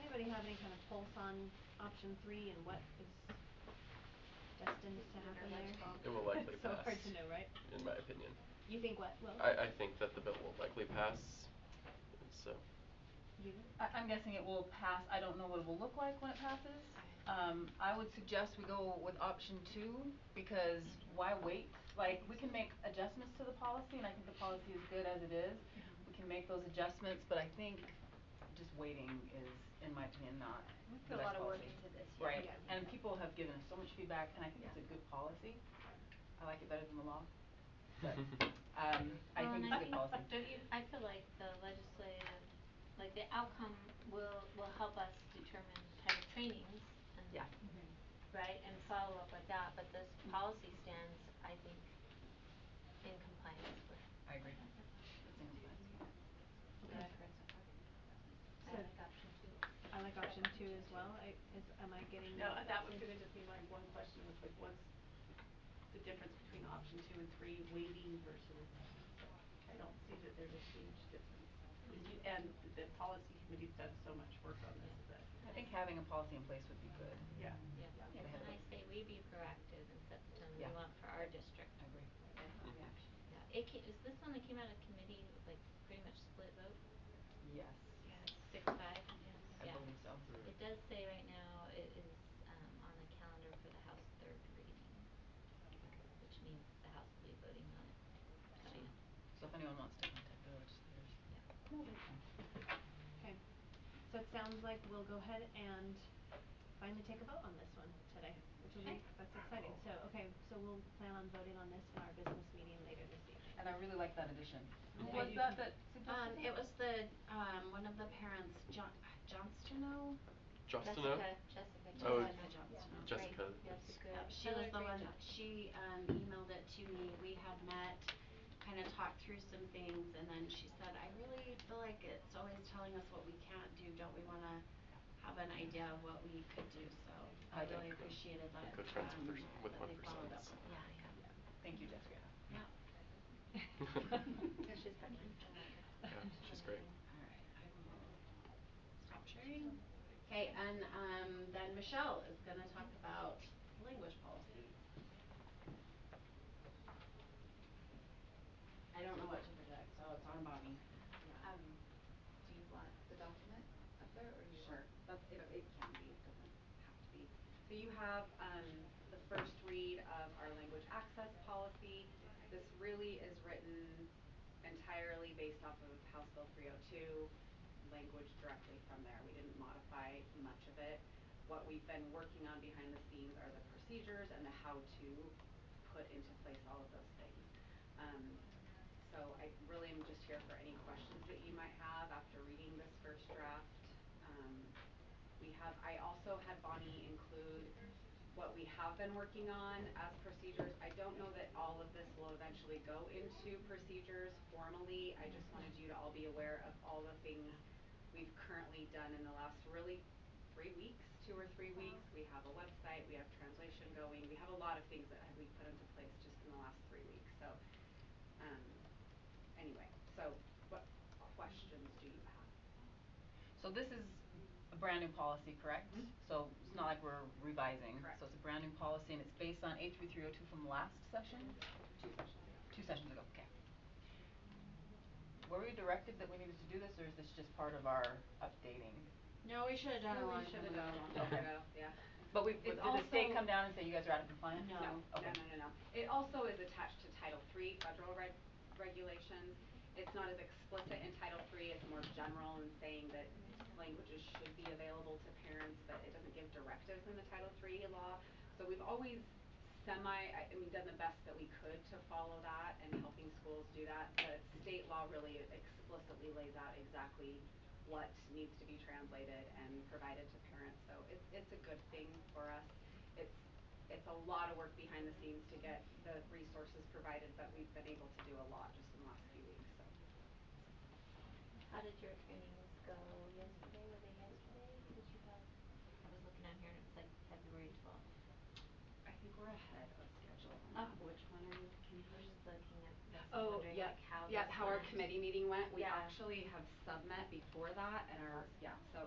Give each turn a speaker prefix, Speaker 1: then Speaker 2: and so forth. Speaker 1: anybody have any kind of pulse on option three and what is destined to happen there?
Speaker 2: It will likely
Speaker 1: So
Speaker 2: pass.
Speaker 1: hard to know, right?
Speaker 2: In my opinion.
Speaker 1: You think what, well?
Speaker 2: I I think that the bill will likely pass, and so
Speaker 1: You?
Speaker 3: I I'm guessing it will pass, I don't know what it will look like when it passes.
Speaker 1: I-
Speaker 3: Um I would suggest we go with option two because why wait? Like, we can make adjustments to the policy and I think the policy is good as it is. We can make those adjustments, but I think just waiting is, in my opinion, not
Speaker 4: We put
Speaker 3: the
Speaker 4: a
Speaker 3: best
Speaker 4: lot of work
Speaker 3: policy.
Speaker 4: into this, yeah.
Speaker 3: Right,
Speaker 1: Yeah.
Speaker 3: and people have given us so much feedback and I think it's
Speaker 4: Yeah.
Speaker 3: a good policy. I like it better than the law, but um I
Speaker 4: Well,
Speaker 3: think
Speaker 4: and
Speaker 3: it's a good policy.
Speaker 4: don't you, I feel like the legislative, like the outcome will, will help us determine type of trainings and
Speaker 3: Yeah.
Speaker 1: Mm-hmm.
Speaker 4: right, and follow up with that, but this policy stands, I think, in compliance with.
Speaker 3: I agree.
Speaker 1: Okay.
Speaker 4: I've heard so far. I
Speaker 1: So-
Speaker 4: like option two.
Speaker 1: I like option two as well, I, is, am I getting?
Speaker 5: No, uh, that was gonna just be my one question, was like, what's the difference between option two and three, waiting versus, I don't see that there's a huge difference. And you- And the policy committee's done so much work on this that,
Speaker 3: I think having a policy in place would be good.
Speaker 5: yeah.
Speaker 4: Yeah,
Speaker 3: Yeah.
Speaker 4: and I say we be proactive and set the tone we
Speaker 3: Yeah.
Speaker 4: want for our district.
Speaker 3: I agree.
Speaker 2: Mhm.
Speaker 4: Yeah, it ca- is this one that came out of committee with like pretty much split vote?
Speaker 3: Yes.
Speaker 4: Six five, yes,
Speaker 3: I
Speaker 4: yeah.
Speaker 3: believe so.
Speaker 2: Mm.
Speaker 4: It does say right now it is um on the calendar for the House third reading, which means the House will be voting on it. So, yeah.
Speaker 3: So if anyone wants to contact the legislators.
Speaker 4: Yeah.
Speaker 3: No, they can.
Speaker 1: Okay, so it sounds like we'll go ahead and finally take a vote on this one today, which will be,
Speaker 4: Okay.
Speaker 1: that's exciting, so, okay, so we'll plan on voting on this in our business meeting later this evening.
Speaker 3: And I really like that addition.
Speaker 1: Who
Speaker 3: Was
Speaker 1: was
Speaker 3: that
Speaker 1: that
Speaker 3: that
Speaker 6: Um, it was the, um, one of the parents, John, Johnstono?
Speaker 2: Justino?
Speaker 4: Jessica, Jessica.
Speaker 2: Oh,
Speaker 6: Jessica Johnstono.
Speaker 2: Jessica is-
Speaker 4: Jessica.
Speaker 6: Uh, she
Speaker 4: Another
Speaker 6: was the
Speaker 4: great
Speaker 6: one,
Speaker 4: job.
Speaker 6: she, um, emailed it to me, we had met, kinda talked through some things, and then she said, I really feel like it's always telling us what we can't do, don't we wanna have an idea of what we could do, so
Speaker 3: I
Speaker 6: I
Speaker 3: don't
Speaker 6: really
Speaker 2: think-
Speaker 6: appreciated that,
Speaker 2: good friends
Speaker 6: um,
Speaker 2: with their s- with
Speaker 6: that
Speaker 2: one
Speaker 6: they followed up.
Speaker 2: percenters.
Speaker 6: Yeah, yeah,
Speaker 3: Thank you, Jessica.
Speaker 6: yeah,
Speaker 4: Yeah, she's funny. I
Speaker 2: Yeah,
Speaker 4: like her.
Speaker 2: she's great.
Speaker 6: alright, I will stop sharing. Okay, and, um, then Michelle is gonna talk about language policy. I don't know what to project, so it's on Bobby.
Speaker 7: Um, do you want the document up there or you
Speaker 6: Sure,
Speaker 7: want?
Speaker 6: that's, it,
Speaker 7: Okay.
Speaker 6: it can be, it doesn't have to be.
Speaker 7: So you have, um, the first read of our language access policy. This really is written entirely based off of House Bill three oh two, language directly from there. We didn't modify much of it. What we've been working on behind the scenes are the procedures and the how to put into place all of those things. Um, so I really am just here for any questions that you might have after reading this first draft. Um, we have, I also had Bonnie include what we have been working on as procedures. I don't know that all of this will eventually go into procedures formally. I just wanted you to all be aware of all the things we've currently done in the last really three weeks, two or three weeks. We have a website, we have translation going, we have a lot of things that have- we put into place just in the last three weeks, so, um, anyway, so what questions do you have?
Speaker 3: So this is a brand new policy, correct?
Speaker 7: Mhm.
Speaker 3: So it's not like we're revising.
Speaker 7: Correct.
Speaker 3: So it's a brand new policy and it's based on A three three oh two from last session?
Speaker 7: Two questions.
Speaker 3: Two sessions ago, okay. Were we directed that we needed to do this or is this just part of our updating?
Speaker 6: No, we should have done a long time ago.
Speaker 3: Okay.
Speaker 7: yeah.
Speaker 3: But we,
Speaker 7: It's
Speaker 3: did the state
Speaker 7: also-
Speaker 3: come down and say you guys are out of compliance?
Speaker 6: No.
Speaker 7: No, no,
Speaker 3: Okay.
Speaker 7: no, no, no. It also is attached to Title III federal reg- regulations. It's not as explicit in Title III, it's more general in saying that languages should be available to parents, but it doesn't give directives in the Title III law. So we've always semi, I I mean, done the best that we could to follow that and helping schools do that. The state law really explicitly lays out exactly what needs to be translated and provided to parents, so it's, it's a good thing for us. It's, it's a lot of work behind the scenes to get the resources provided, but we've been able to do a lot just in the last few weeks, so.
Speaker 4: How did your trainings go yesterday? Were they yesterday? Did you have, I was looking out here and it's like February twelfth.
Speaker 7: I think we're ahead of schedule
Speaker 4: Oh.
Speaker 7: on that. Which one are you
Speaker 4: I was just looking at this and
Speaker 7: Uh, Oh,
Speaker 4: wondering
Speaker 7: yeah,
Speaker 4: like how
Speaker 7: yeah,
Speaker 4: this
Speaker 7: how our
Speaker 4: went.
Speaker 7: committee meeting went, we
Speaker 4: Yeah.
Speaker 7: actually have submet before that and our, yeah, so